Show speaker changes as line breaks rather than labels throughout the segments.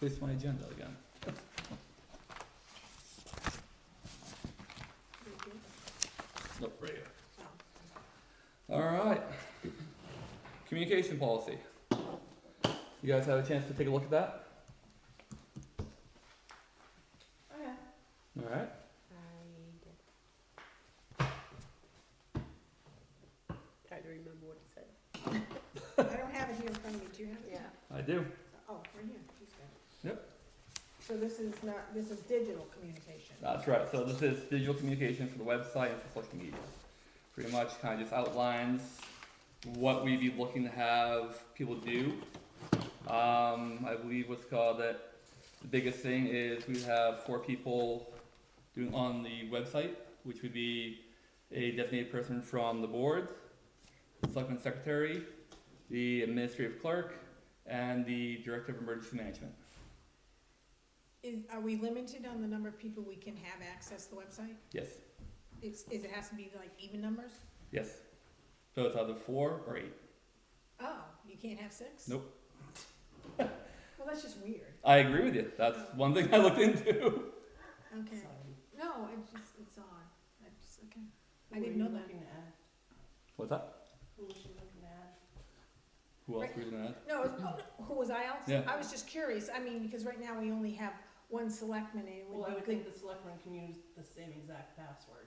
with my agenda again. Nope, right here. Alright. Communication policy. You guys have a chance to take a look at that?
Okay.
Alright.
I did. Try to remember what it said.
I don't have it here in front of me, do you have it?
Yeah.
I do.
Oh, right here, he's got it.
Yep.
So this is not, this is digital communication.
That's right. So this is digital communication for the website and for social media. Pretty much kind of just outlines what we'd be looking to have people do. Um, I believe what's called that the biggest thing is we have four people doing on the website, which would be a designated person from the board, the selectman secretary, the administrative clerk, and the director of emergency management.
Is, are we limited on the number of people we can have access the website?
Yes,
It's, is it has to be like even numbers?
yes. So it's either four or eight.
Oh, you can't have six?
Nope.
Well, that's just weird,
I agree with you. That's one thing I looked into.
okay. No, it's just, it's odd, I just, okay. I didn't know that.
What's that? Who else were you gonna add?
No, it was, oh, no, who was I else?
Yeah.
I was just curious, I mean, because right now we only have one selectman and it
Well, I
would be
would
good.
think the selectmen can use the same exact password.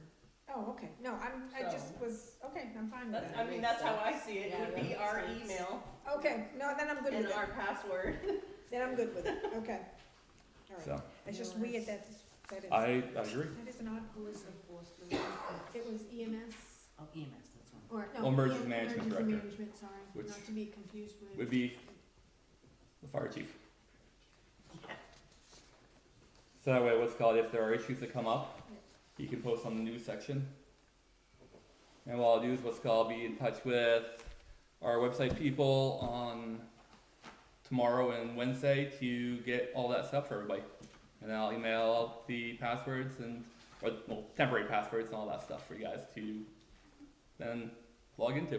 Oh, okay, no, I'm, I just
So-
was, okay, I'm fine with
That's,
that.
I mean, that's how I see it,
Yeah,
It would be
that
our
makes sense.
email
Okay, no, then I'm good
and
with it,
our password.
then I'm good with it, okay. All right.
So
It's just weird that, that is,
I, I agree.
that is an odd policy.
enforcement?
It was EMS
Oh, EMS, that's one.
or,
Or
no.
emergency
em-
management
emergency
director,
management, sorry,
which
not to be confused
Would
with.
be the fire chief. So that way, what's called if there are issues that come up, you can post on the news section. And what I'll do is what's called be in touch with our website people on tomorrow and Wednesday to get all that stuff for everybody. And I'll email out the passwords and or well, temporary passwords and all that stuff for you guys to then log into.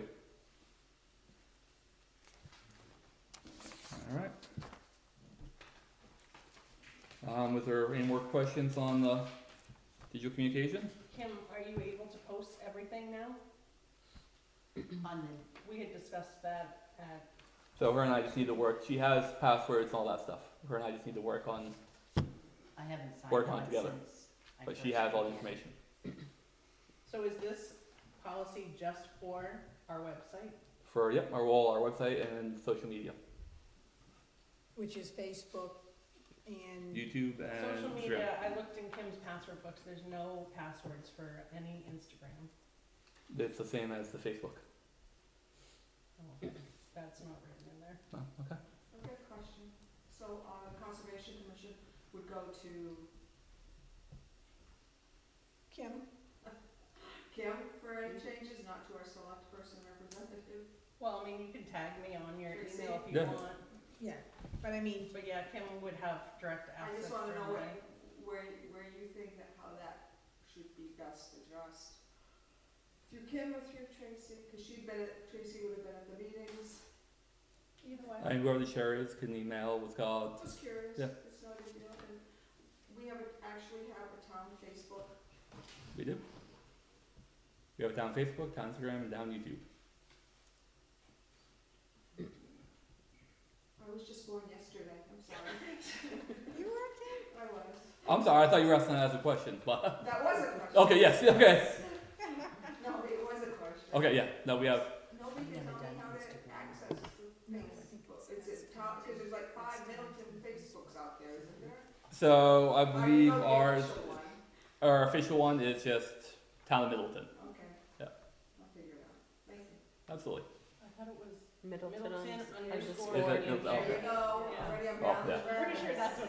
All right. Um, was there any more questions on the digital communication?
Kim, are you able to post everything now?
On
We had discussed that at,
So her and I just need to work. She has passwords and all that stuff. Her and I just need to work on,
the, I haven't signed
Work on
one
together.
since I
but she
first
has all the
began.
information.
so is this policy just for our website?
For yep, our wall, our website, and social media,
Which is Facebook and,
YouTube and
Social
Instagram.
media, I looked in Kim's password books, there's no passwords for any Instagram.
It's the same as the Facebook.
Oh, That's not written in there.
Oh, okay.
Okay, question. So, uh, Conservation Commission would go to
Kim,
Kim for any changes, not to our select person representative?
Well, I mean, you can tag me on your
Your
email if you
Yeah.
want,
yeah, but I mean,
but yeah, Kim would have direct
I
access
just
for
wanna know
everybody.
where, where, where you think that, how that should be best addressed. Through Kim or through Tracy, cause she'd been at, Tracy would have been at the meetings.
Either way.
And whoever the chair is can email what's called.
Just curious,
Yeah.
it's not a big deal, and we have, a- actually have a town Facebook.
We do. We have it down Facebook, down Instagram, and down YouTube.
I was just born yesterday, I'm sorry.
you were
I was.
I'm sorry, I thought you were asking that as a question, but
That was a question.
okay, yes, okay,
No, it was a question.
okay, yeah. No, we have
Nobody can
Never
tell me
done
how to
Instagram.
access the
No, I think
Facebook.
it's-
It's at top, cause there's like five Middleton Facebooks out there, isn't there?
So I
Or
believe
no, the
ours,
official one.
our official one is just Town of Middleton.
Okay.
Yeah.
I'll figure it out. Thank you.
Absolutely.
I thought it was
Middleton
Middleton
underscore
underscore. E
Is it-
UK.
okay.
There you go,
Yeah.
already I'm
Oh,
down.
yeah.
to
I'm pretty sure
Brad.
that's what